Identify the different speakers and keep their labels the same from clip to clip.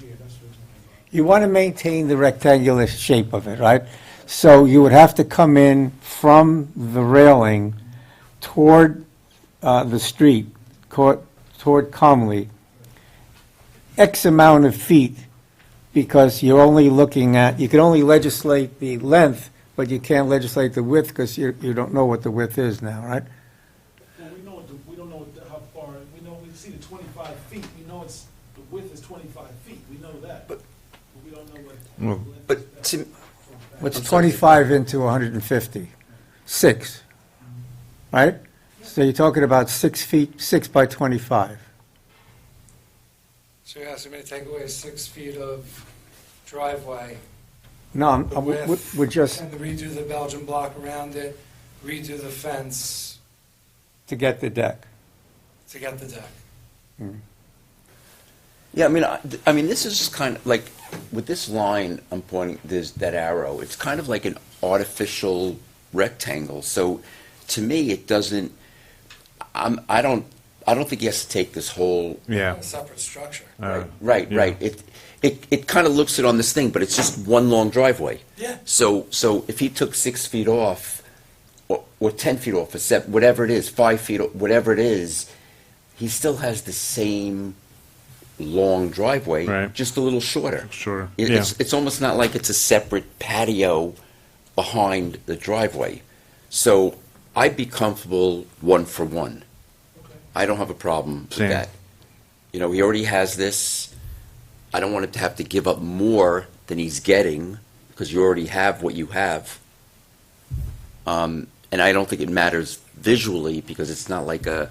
Speaker 1: here, that's what I'm
Speaker 2: You want to maintain the rectangular shape of it, right? So you would have to come in from the railing toward uh, the street, co- toward Comley, X amount of feet, because you're only looking at, you can only legislate the length, but you can't legislate the width, because you, you don't know what the width is now, right?
Speaker 1: Well, we know, what the- we don't know what the- how far, we know, we see the twenty-five feet, we know it's, the width is twenty-five feet, we know that. But. We don't know what. what-
Speaker 3: But to,
Speaker 2: What's 25 into 150? Six, right? So you're talking about six feet, six by 25.
Speaker 4: So you're asking me to take away six feet of driveway
Speaker 2: No, I'm-
Speaker 4: The
Speaker 2: I'm- we-
Speaker 4: width.
Speaker 2: we're just,
Speaker 4: and redo the Belgian block around it, redo the fence
Speaker 2: to get the deck.
Speaker 4: to get the deck.
Speaker 3: yeah, I mean, I, th- I mean, this is just kind of like, with this line I'm pointing, there's that arrow, it's kind of like an artificial rectangle. So to me, it doesn't, I'm, I don't, I don't think he has to take this whole
Speaker 5: Yeah.
Speaker 4: A separate structure.
Speaker 5: Uh,
Speaker 3: Right, right,
Speaker 5: yeah.
Speaker 3: right. It, it, it kind of looks it on this thing, but it's just one long driveway.
Speaker 4: Yeah.
Speaker 3: So, so if he took six feet off, or, or ten feet off, or seven, whatever it is, five feet, o- whatever it is, he still has the same long driveway,
Speaker 5: Right.
Speaker 3: just a little shorter.
Speaker 5: Shorter,
Speaker 3: It-
Speaker 5: yeah.
Speaker 3: It's, it's almost not like it's a separate patio behind the driveway. So I'd be comfortable one for one.
Speaker 1: Okay.
Speaker 3: I don't have a problem with
Speaker 5: Same.
Speaker 3: that. You know, he already has this. I don't want him to have to give up more than he's getting because you already have what you have. Um, and I don't think it matters visually because it's not like a,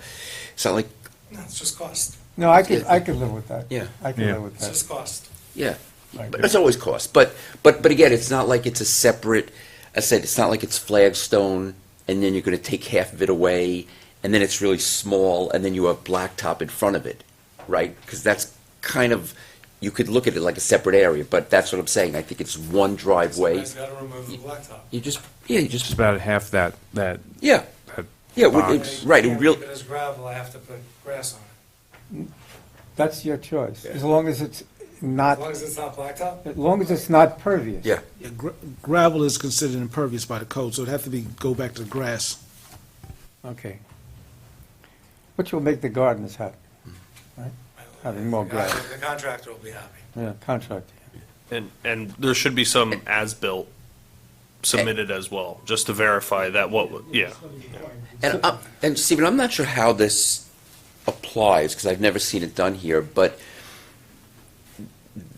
Speaker 3: it's not like,
Speaker 4: No, it's just cost.
Speaker 2: No, I could, I could live with that.
Speaker 3: Yeah.
Speaker 2: I could
Speaker 5: Yeah.
Speaker 2: live with
Speaker 4: It's
Speaker 2: that.
Speaker 4: just cost.
Speaker 3: yeah,
Speaker 2: Right.
Speaker 3: but it's always cost. But, but, but again, it's not like it's a separate, I said, it's not like it's flagstone and then you're going to take half of it away and then it's really small and then you have blacktop in front of it, right? Because that's kind of, you could look at it like a separate area, but that's what I'm saying. I think it's one driveway.
Speaker 4: Somebody's gotta remove the blacktop.
Speaker 3: You just, yeah, you
Speaker 5: Just
Speaker 3: just,
Speaker 5: about half that, that,
Speaker 3: yeah,
Speaker 5: that
Speaker 3: yeah, it would-
Speaker 5: box.
Speaker 3: it- right, it
Speaker 4: Can't
Speaker 3: real,
Speaker 4: Leave it as gravel, I have to put grass on it.
Speaker 2: That's your choice, as long as it's not,
Speaker 4: As long as it's not blacktop?
Speaker 2: as long as it's not pervious.
Speaker 3: yeah.
Speaker 1: Yeah, gra- Gravel is considered impervious by the code, so it'd have to be, go back to grass.
Speaker 2: Okay. Which will make the gardeners happy, right? Having more grass,
Speaker 4: The contractor will be happy.
Speaker 2: yeah, contract.
Speaker 6: And, and there should be some as-built submitted as well, just to verify that what, wa- yeah.
Speaker 3: And, I'm- and Stephen, I'm not sure how this applies, because I've never seen it done here, but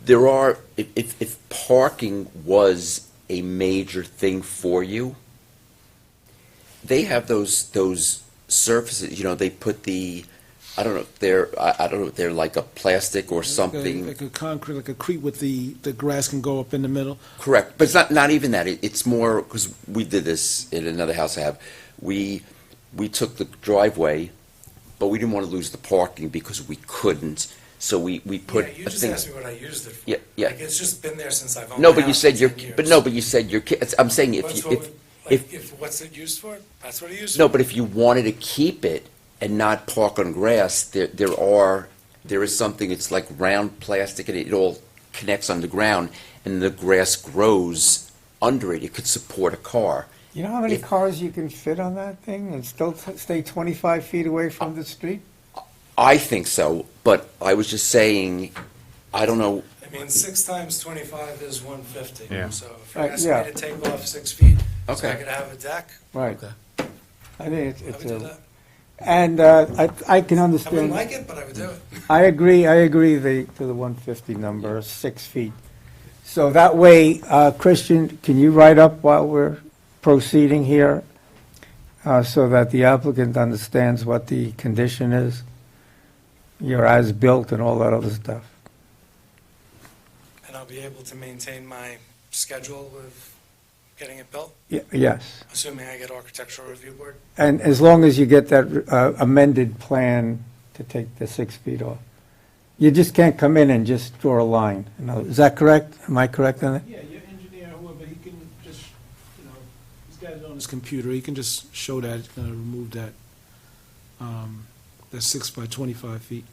Speaker 3: there are, if- if, if parking was a major thing for you, they have those, those surfaces, you know, they put the, I don't know if they're, I, I don't know if they're like a plastic or something,
Speaker 1: Like a concrete, like a creek with the, the grass can go up in the middle.
Speaker 3: correct, but it's not, not even that, It- it's more, because we did this in another house I have, we, we took the driveway, but we didn't want to lose the parking because we couldn't. So we, we put
Speaker 4: Yeah, you
Speaker 3: a
Speaker 4: just
Speaker 3: thing.
Speaker 4: asked me what I used it for.
Speaker 3: Yeah, yeah.
Speaker 4: Like, it's just been there since I've owned
Speaker 3: No,
Speaker 4: the
Speaker 3: but you
Speaker 4: house
Speaker 3: said
Speaker 4: for
Speaker 3: your,
Speaker 4: 10
Speaker 3: but
Speaker 4: years.
Speaker 3: no, but you said your kids, I'm saying if,
Speaker 4: That's
Speaker 3: you-
Speaker 4: what
Speaker 3: if,
Speaker 4: we-
Speaker 3: if-
Speaker 4: Like, if, what's it used for? That's what it used for.
Speaker 3: no, but if you wanted to keep it and not park on grass, there, there are, there is something, it's like round plastic and it all connects on the ground and the grass grows under it. It could support a car.
Speaker 2: You know how many
Speaker 3: If-
Speaker 2: cars you can fit on that thing and still t- stay 25 feet away from the street?
Speaker 3: I think so, but I was just saying, I don't know,
Speaker 4: I mean, six times twenty-five is one fifty.
Speaker 5: Yeah.
Speaker 4: So if you're
Speaker 2: Right,
Speaker 4: asking
Speaker 2: yeah.
Speaker 4: me to take off six feet, so I
Speaker 3: Okay.
Speaker 4: could have a deck,
Speaker 2: Right. I think it's,
Speaker 4: I would
Speaker 2: it's
Speaker 4: do
Speaker 2: a,
Speaker 4: that.
Speaker 2: and uh, I, I can
Speaker 4: I wouldn't
Speaker 2: understand,
Speaker 4: like it, but I would do it.
Speaker 2: I agree, I agree the, to the 150 number, six feet. So that way, uh, Christian, can you write up while we're proceeding here? uh, So that the applicant understands what the condition is, your as-built and all that other stuff.
Speaker 4: And I'll be able to maintain my schedule of getting it built,
Speaker 2: Y- Yes.
Speaker 4: assuming I get architectural review board.
Speaker 2: And as long as you get that uh, amended plan to take the six feet off. You just can't come in and just draw a line. You know, Is that correct? Am I correct on that?
Speaker 1: Yeah, your engineer, whoever, he can just, you know, he's got it on his computer, he can just show that, uh, remove that, um, that six by twenty-five feet.